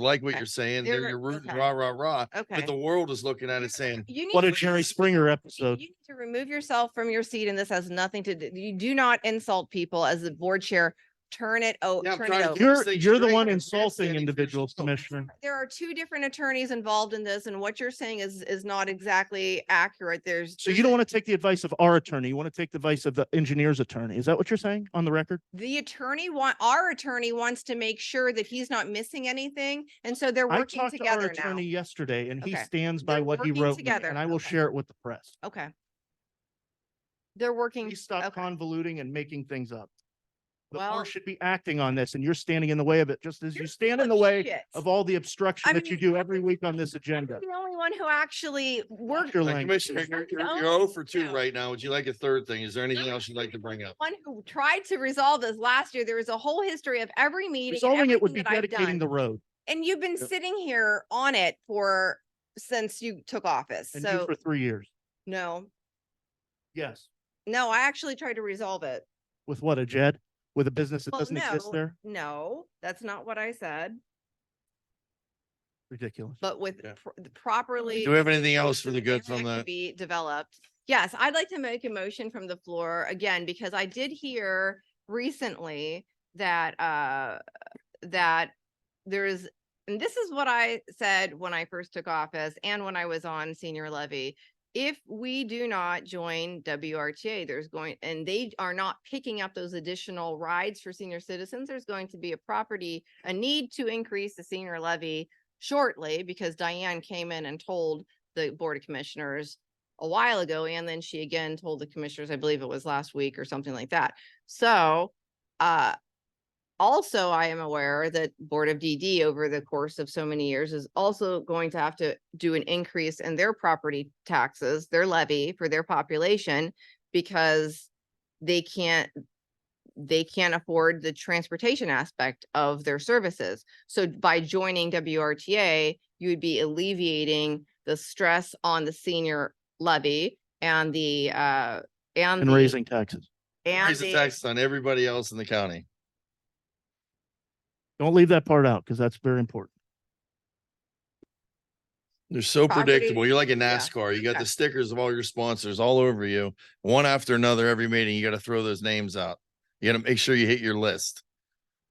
like what Okay. you're saying. They're They're- your rooting okay. rah, rah, rah. Okay. But the world is looking at it saying, You need What a to- Jerry Springer You episode. need to remove yourself from your seat and this has nothing to do, you do not insult people as the board chair. Turn it, oh, Yeah, I'm turn trying it to over. keep- You're, saying you're the straight one up, insulting grandstanding for individuals, yourself. Commissioner. There are two different attorneys involved in this and what you're saying is, is not exactly accurate. There's. So you don't want to take the advice of our attorney. You want to take the advice of the engineer's attorney. Is that what you're saying on the record? The attorney want, our attorney wants to make sure that he's not missing anything. And so they're I working talked to our together now. attorney yesterday and he Okay. stands by They're what he working wrote me, together. and I will Okay. share it with the press. Okay. They're working. Please stop okay. convoluting and making things up. The Well- board should be acting on this and you're standing in the way of it, just as you You're stand in full the of way shit. of all the obstruction I that you mean, do every week on this I'm agenda. The only one who actually worked, Your "Hey, language. Commissioner, you're, you're Something else you're 0 for now. two right now. Would you like a third thing? Is there anything else you'd like to bring up? one who tried to resolve this last year. There was a whole history of every meeting. and Resolving it would be everything that I've dedicating the done. road And you've been Yep. sitting here on it for, since you took office. and do So, for three years. no, Yes. no, I actually tried to resolve it. With what, a JED? With a business that Well, doesn't exist no. there? No, that's not what I said, Ridiculous. but with Yeah. pr- the properly. Do we have anything else for so the good area from can the? Be developed. Yes, I'd like to make a motion from the floor again, because I did hear recently that, uh, that there is, and this is what I said when I first took office and when I was on senior levy. If we do not join WRTA, there's going, and they are not picking up those additional rides for senior citizens, there's going to be a property, a need to increase the senior levy shortly because Diane came in and told the Board of Commissioners a while ago, and then she again told the commissioners, I believe it was last week or something like that. So, uh, also I am aware that Board of DD over the course of so many years is also going to have to do an increase in their property taxes, their levy for their population, because they can't, they can't afford the transportation aspect of their services. So by joining WRTA, you would be alleviating the stress on the senior levy and the, uh, and. And the- raising taxes. And Raise the the, taxes on everybody else in the county. Don't leave that part out because that's very important. They're so Property- predictable. You're like a yeah, NASCAR. You got okay. the stickers of all your sponsors all over you, one after another every meeting. You got to throw those names out. You got to make sure you hit your list.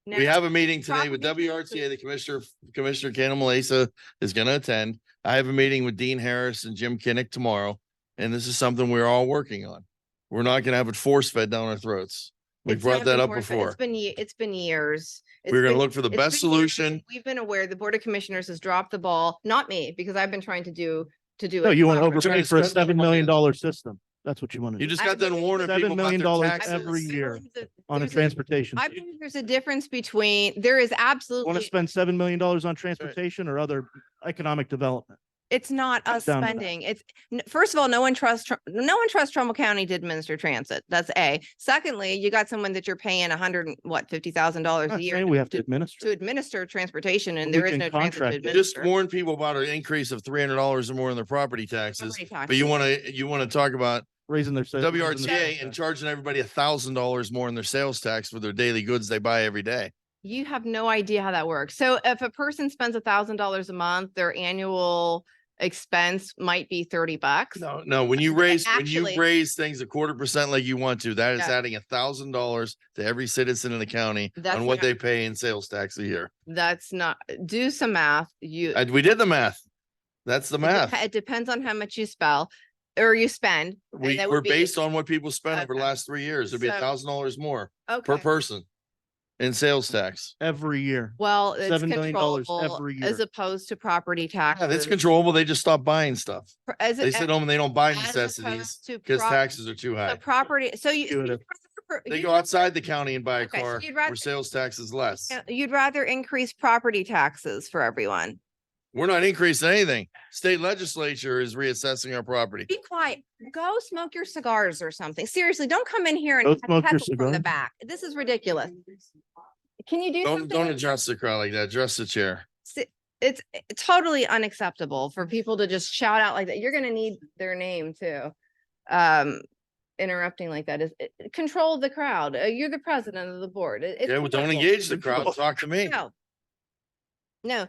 We now- have a meeting today with property WRTA. taxes. The Commissioner, Commissioner Cannon Malasa is going to attend. I have a meeting with Dean Harris and Jim Kinnick tomorrow, and this is something we're all working on. We're not going to have it force fed down our throats. We It's brought not that been up forced, but before. It's been, ye- it's been years. It's We're going to been- look for the it's best been years. solution. We've been aware, the Board of Commissioners has dropped the ball, not me, because I've been trying to do, to do. No, it you want to properly. Trying overpay to for a spend seven more million money. dollar system. That's what you want to You do just I got done believe warning $7 people about million their dollars taxes. every I year believe that on a there's a- transportation. I fee. believe there's a difference between, there is Want to absolutely, spend seven million dollars on transportation or other economic development? it's not us down to that. spending. It's, n- first of all, no one trusts, Tr- no one trusts Trumbull County to administer transit. That's A. Secondly, you got someone that you're paying a hundred and what, fifty thousand dollars I'm a not year saying we have to to administer. administer transportation and We there is can no transit to contract it. You just administer. warn people about an increase of three hundred dollars or more in their property taxes, Property but you want to, you want to talk about Raising their. sa- raising their WRTA and tax. charging everybody a thousand dollars more in their sales tax for their daily goods they buy every day. You have no idea how that works. So if a person spends a thousand dollars a month, their annual expense might be thirty bucks. No, no, when you raise, when actually- you raise things a quarter percent like you want to, that is Yeah. adding a thousand dollars to every citizen in the county That's on what not- they pay in sales tax a year. That's not, do some math, you. it And we did the math. That's the dep- math. It depends on how much you spell or you spend. and We, that would we're be- based on what people spent over the Okay. last three years. It'd be So- a thousand dollars more per Okay, person in sales tax. Every year. well, it's $7 million controllable every as year. opposed to property Yeah, that's taxes. controllable. They just stop buying stuff. pr- as They a- sit home and they don't buy as opposed necessities to because prop- taxes are too so high. Property, so you. so Intuitive. you'd rather- They you'd go rather- outside the county and buy a Okay, so car you'd rather- where sales tax is less. You'd rather increase property taxes for everyone. We're not increasing anything. State legislature is reassessing our property. Be quiet. Go smoke your cigars or something. Seriously, don't come in here Go and smoke your heckle from the cigar. back. This is ridiculous. Can you do Don't, something? don't with- adjust the crowd like that. Adjust the chair. Si- It's eh, totally unacceptable for people to just shout out like that. You're gonna need their name too. Um, interrupting like that is, it- it- control the crowd. Uh, You're the president of the board. It- it's Yeah, well, don't horrible. engage the Control. crowd. Talk to me. No. No,